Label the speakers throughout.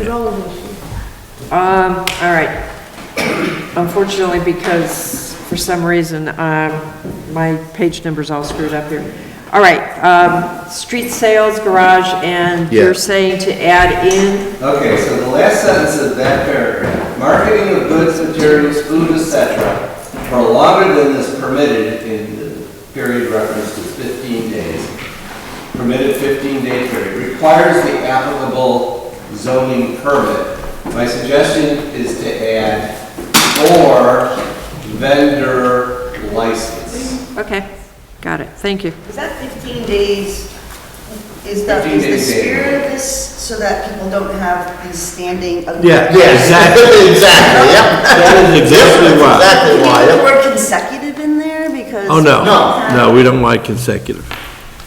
Speaker 1: It all is an issue.
Speaker 2: Um, all right. Unfortunately, because for some reason, um, my page number's all screwed up here. All right, um, street sales, garage, and
Speaker 3: Yeah.
Speaker 2: you're saying to add in,
Speaker 4: Okay, so the last sentence of that paragraph, marketing of goods, materials, food, etc., for longer than is permitted in the period referenced as 15 days, permitted 15 day period, requires the applicable zoning permit. My suggestion is to add or vendor license.
Speaker 2: okay, got it, thank you.
Speaker 5: Is that 15 days, is that,
Speaker 4: 15
Speaker 5: is the
Speaker 4: days
Speaker 5: spirit of
Speaker 4: daily.
Speaker 5: this so that people don't have these standing?
Speaker 3: Yeah, yeah, exactly, exactly, yep. That is exactly why. Exactly
Speaker 5: Can
Speaker 3: why,
Speaker 5: you put the
Speaker 3: yep.
Speaker 5: word consecutive in there because?
Speaker 6: Oh, no.
Speaker 3: No.
Speaker 6: No, we don't want consecutive.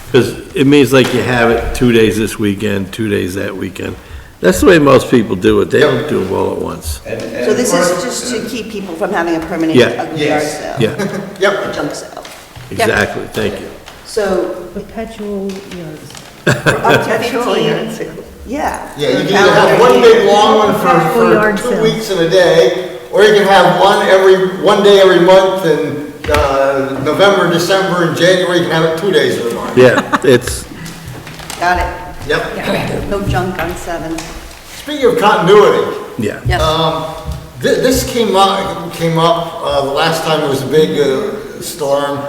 Speaker 6: Because it means like you have it two days this weekend, two days that weekend. That's the way most people do it. They don't do it all at once.
Speaker 4: And- and
Speaker 5: So this
Speaker 4: of
Speaker 5: is
Speaker 4: course-
Speaker 5: just to keep people from having a permanent
Speaker 6: Yeah.
Speaker 5: ugly yard
Speaker 4: Yes.
Speaker 5: sale?
Speaker 6: Yeah,
Speaker 5: A junk sale.
Speaker 6: exactly, thank you.
Speaker 5: So
Speaker 1: Perpetual yards.
Speaker 5: up to
Speaker 2: Perpetual yard
Speaker 5: 15, yeah.
Speaker 3: Yeah, you
Speaker 5: for a
Speaker 3: can either have
Speaker 5: calendar
Speaker 3: one
Speaker 5: year.
Speaker 3: big long one for,
Speaker 1: Full
Speaker 3: for
Speaker 1: yard
Speaker 3: two
Speaker 1: sale.
Speaker 3: weeks in a day, or you can have one every, one day every month in, uh, November, December, and January, you can have it two days in a month.
Speaker 6: Yeah, it's,
Speaker 5: Got
Speaker 3: Yep.
Speaker 5: it. No junk on seven.
Speaker 3: Speaking of continuity,
Speaker 6: yeah.
Speaker 2: Yes,
Speaker 3: Um, thi- This came up, came up, uh, the last time it was a big uh, storm,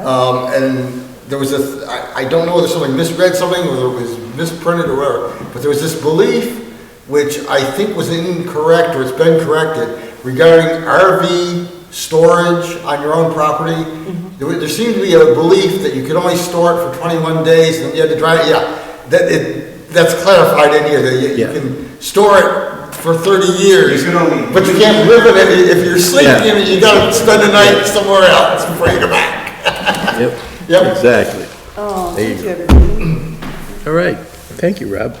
Speaker 3: um, and there was a, I I don't know whether someone misread something, or it was misprinted or whatever, but there was this belief, which I think was incorrect, or it's been corrected, regarding RV storage on your own property. There wa- there seemed to be a belief that you could only store it for 21 days, and you had to dry it, yeah, that, it, that's clarified in here, that you- you
Speaker 6: Yeah.
Speaker 3: can store it for 30 years.
Speaker 4: You can only-
Speaker 3: But you can't live in it, if you're sleeping,
Speaker 6: Yeah.
Speaker 3: in it, you gotta spend the night somewhere else before you go back.
Speaker 6: Yep.
Speaker 3: Yep.
Speaker 6: Exactly.
Speaker 5: Oh, thank you, everybody.
Speaker 6: All right, thank you, Rob.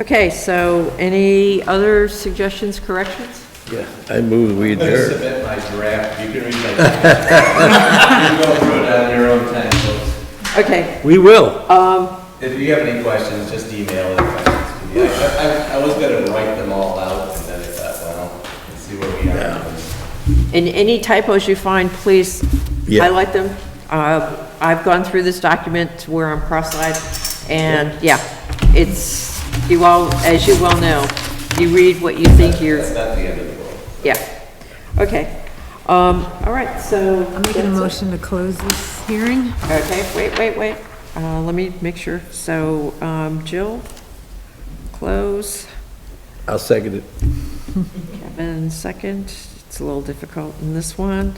Speaker 2: okay, so any other suggestions, corrections?
Speaker 6: Yeah. I move we
Speaker 4: I'm going to
Speaker 6: adjourn.
Speaker 4: submit my draft, you can read my draft. You go through it on your own time, folks.
Speaker 2: Okay,
Speaker 6: We will.
Speaker 2: um,
Speaker 4: If you have any questions, just email the questions to me. I- I, I was gonna write them all out, and then I thought, well, let's see where we are.
Speaker 2: and any typos you find, please
Speaker 6: Yeah.
Speaker 2: highlight them. Uh, I've gone through this document to where I'm cross-eyed, and yeah, it's, you all, as you well know, you read what you think you're
Speaker 4: That's not the end of the world.
Speaker 2: Yeah, okay. Um, all right, so.
Speaker 1: I'm making a
Speaker 2: that's it.
Speaker 1: motion to close this hearing.
Speaker 2: Okay, wait, wait, wait. Uh, let me make sure. So, um, Jill, close,
Speaker 6: I'll second it.
Speaker 2: Kevin, second. It's a little difficult in this one.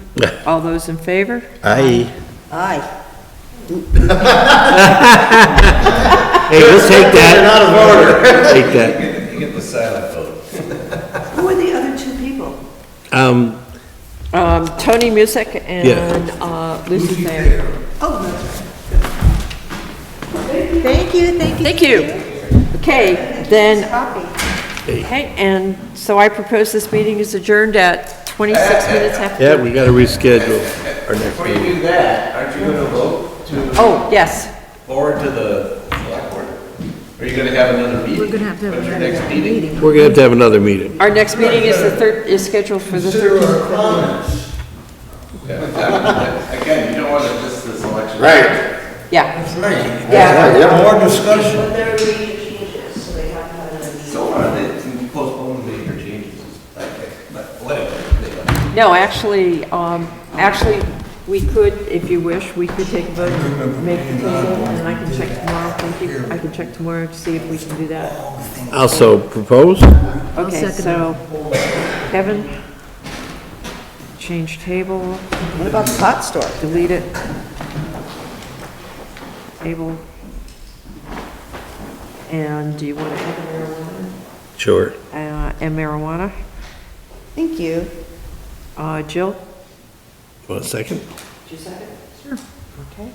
Speaker 2: All those in favor?
Speaker 6: Aye.
Speaker 5: Aye.
Speaker 6: Hey, we'll take that. You're out of order. Take that.
Speaker 4: You get- You get the silent vote.
Speaker 5: Who are the other two people?
Speaker 6: Um,
Speaker 2: Um, Tony Music and,
Speaker 6: Yeah.
Speaker 2: uh, Lucy Thayer.
Speaker 5: Oh, no. Thank you, thank you.
Speaker 2: Thank you. Okay, then,
Speaker 5: Copy.
Speaker 2: okay, and so I propose this meeting is adjourned at twenty-six minutes after.
Speaker 6: yeah, we gotta reschedule our next
Speaker 4: Before you
Speaker 6: meeting.
Speaker 4: do that, aren't you gonna vote to,
Speaker 2: Oh, yes.
Speaker 4: forward to the select board? Are you gonna have another meeting?
Speaker 1: We're gonna have to have
Speaker 4: When's your
Speaker 1: another
Speaker 4: next meeting?
Speaker 6: We're gonna have to have another meeting.
Speaker 2: Our next meeting is the third, is scheduled for the third.
Speaker 3: our comments.
Speaker 4: Yeah, that- Again, you don't wanna miss this election.
Speaker 3: Right.
Speaker 2: Yeah,
Speaker 3: Right.
Speaker 2: yeah.
Speaker 3: More discussion.
Speaker 5: But there are meeting changes, so they have to have another meeting.
Speaker 4: So are they postponing the interchanges? Okay, But whatever.
Speaker 2: No, actually, um, actually, we could, if you wish, we could take a vote, and make the proposal, and I can check tomorrow, thank you, I can check tomorrow to see if we can do that.
Speaker 6: Also proposed?
Speaker 2: Okay,
Speaker 1: second
Speaker 2: so, Kevin, change table,
Speaker 5: What about the pot store?
Speaker 2: delete it. Table. And do you want to add
Speaker 6: Sure.
Speaker 2: marijuana? Uh, and marijuana?
Speaker 5: Thank you.
Speaker 2: Uh, Jill?
Speaker 6: One second.
Speaker 2: Did you say it? Sure. Okay.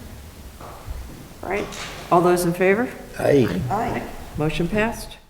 Speaker 2: All right, all those in favor?
Speaker 6: Aye.
Speaker 5: Aye.
Speaker 2: Motion passed.